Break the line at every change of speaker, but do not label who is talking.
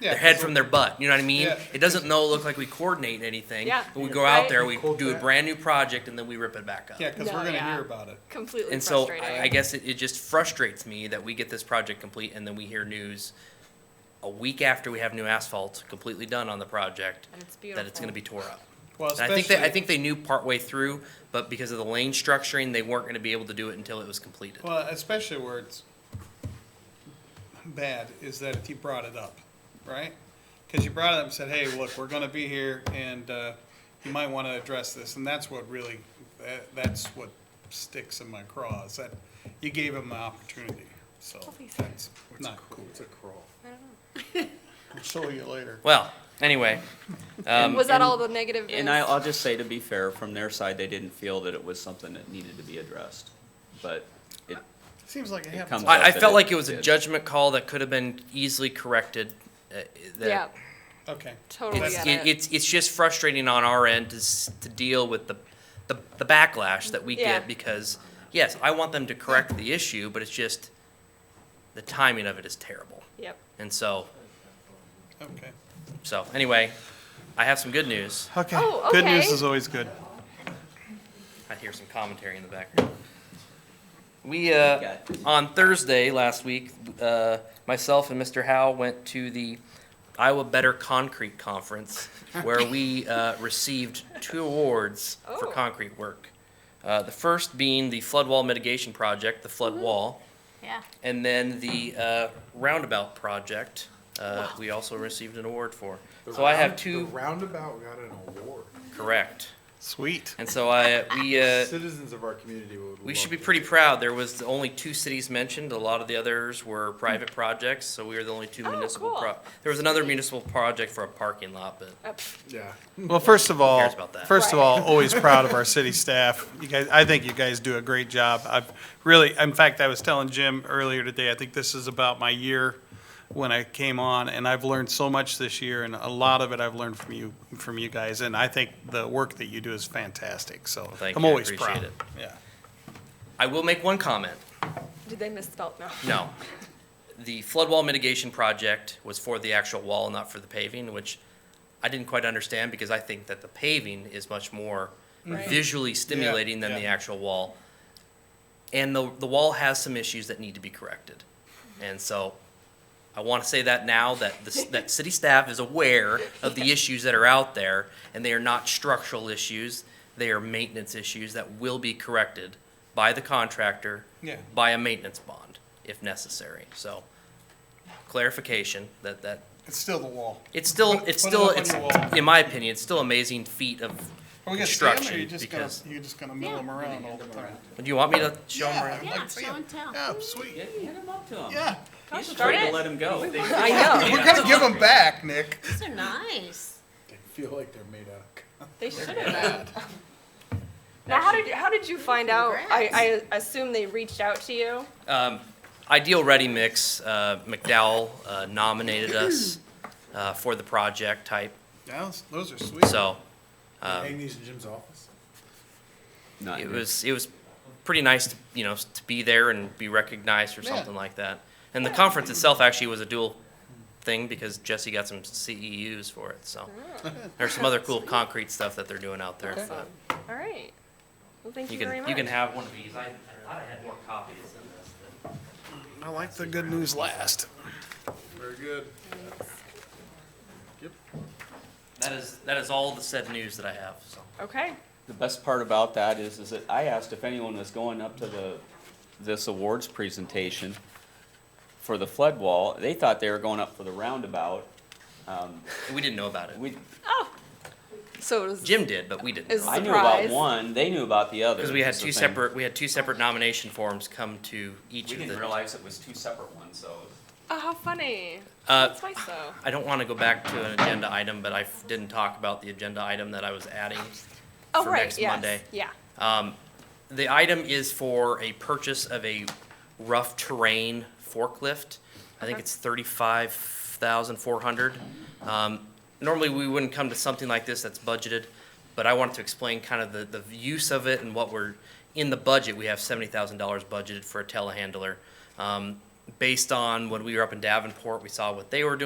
Yeah,
their head
so-
from their butt. You know what I mean?
Yeah.
It doesn't no look like we coordinate anything.
Yeah.
But we go out
Right.
there, we
Quote
do a
that.
brand new project, and then we rip it back up.
Yeah, because
No,
we're gonna
yeah.
hear about it.
completely
And so
frustrating.
I, I guess it, it just frustrates me that we get this project complete and then we hear news a week after we have new asphalt completely done on the project
and it's beautiful.
that it's going to be tore up.
Well,
And I think they, I
especially-
think they knew partway through, but because of the lane structuring, they weren't going to be able to do it until it was completed.
Well, especially where it's bad is that if you brought it up, right? Because you brought it up and said, hey, look, we're gonna be here and, uh, you might wanna address this, and that's what really, that, that's what sticks in my craw, is that you gave them an opportunity, so
Please.
that's not cool. It's a crawl. I'll show you later.
Well, anyway, um,
was that
and-
all the negative? is-
And I, I'll just say, to be fair, from their side, they didn't feel that it was something that needed to be addressed. But it,
Seems like it
It
happens.
comes
all-
I, I
that
felt
it
like it was a
did.
judgment call that could have been easily corrected. Uh, that
yeah,
Okay.
totally
It's,
get
it,
it.
it's it's just frustrating on our end to, s- to deal with the, the the backlash that we
Yeah.
get because yes, I want them to correct the issue, but it's just the timing of it is terrible.
yep.
And so
Okay.
so anyway, I have some good news.
Okay.
Oh, Good news okay. is
always good.
I hear some commentary in the background. We, uh,
got this.
on Thursday last week, uh, myself and Mr. Howe went to the Iowa Better Concrete Conference where we, uh, received two awards for
Oh.
concrete work. Uh, the first being the flood wall mitigation project, the flood wall,
Yeah.
and then the, uh, roundabout project, uh, we also received an award for. So I have
The
two,
roundabout got an award.
correct.
Sweet.
And so I, we, uh,
Citizens of our community would.
We should
love
be
to-
pretty proud. There was only two cities mentioned. A lot of the others were private projects, so we were the only two
Oh,
municipal.
cool.
pro- There was another municipal project for a parking lot, but
Uh, pff,
Yeah.
Well, first of all,
cares about that?
first of
Right.
all, always proud of our city staff. You guys, I think you guys do a great job. I've really, in fact, I was telling Jim earlier today, I think this is about my year when I came on, and I've learned so much this year, and a lot of it I've learned from you, from you guys, and I think the work that you do is fantastic, so
thank
I'm
you. I
always
appreciate
proud.
it.
Yeah.
I will make one comment.
did they misspell? No.
No. The flood wall mitigation project was for the actual wall, not for the paving, which I didn't quite understand because I think that the paving is much more
Right.
visually stimulating than the
Mm-hmm. yeah.
actual wall. And the, the wall has some issues that need to be corrected. And so I want to say that now that the, s- that city staff is aware of the issues that are out there and they are not structural issues. They are maintenance issues that will be corrected by the contractor
Yeah.
by a maintenance bond if necessary. So clarification that, that,
It's still the wall.
it's still,
Put-
it's
put it
still,
up on
it's,
your wall.
in my opinion, it's still amazing feat of
Are we gonna stand there,
Construction,
or you're just gonna,
because-
you're just gonna mill them around all the time?
Do you want me to show them around?
I'd like to see 'em. Yeah, Oh, sweet,
Hit him up to him.
yeah.
He's
Start
afraid to
it.
let him go.
I know.
We're gonna give them back, Nick.
These are nice.
They feel like they're made out of. con-
They should have. been. Now, how did you, how did you find out? I, I assume they reached out to you.
Um, Ideal Ready Mix, uh, McDowell uh, nominated us uh, for the project type,
Yeah, those are sweet.
so Um,
Hang these in Jim's office.
Not
it
you.
was, it was pretty nice, to you know, to be there and be recognized or
Yeah.
something like that. And the conference itself actually was a dual thing because Jesse got some CEUs for it, so. There's some other cool concrete stuff that they're doing out there.
Awesome.
but
All right. Well, thank you,
You can,
very much.
you can have one of these. I I thought I had more copies than this. but-
I like the good news last.
Very good.
That is, that is all the said news that I have, so.
okay.
The best part about that is, is that I asked if anyone was going up to the, this awards presentation for the flood wall. They thought they were going up for the roundabout. Um,
We didn't know about it.
we,
Oh. So it was
Jim did, but we didn't.
Is-
I knew about
Surprise.
one, they knew about the other.
Because we had
is the
two
thing.
separate, we had two separate nomination forms come to each
We
of
didn't
the.
realize it was two separate ones, so.
Oh, how funny.
Uh,
That's nice though.
I don't want to go back to an agenda item, but I f- didn't talk about the agenda item that I was adding.
Oh,
for
right.
next
yes.
Monday.
Yeah.
Um, the item is for a purchase of a rough terrain forklift. I think
Okay.
it's thirty-five thousand four hundred. Um, normally, we wouldn't come to something like this that's budgeted, but I wanted to explain kind of the, the use of it and what we're, in the budget, we have seventy thousand dollars budgeted for a telehandler. Um, based on when we were up in Davenport, we saw what they were doing.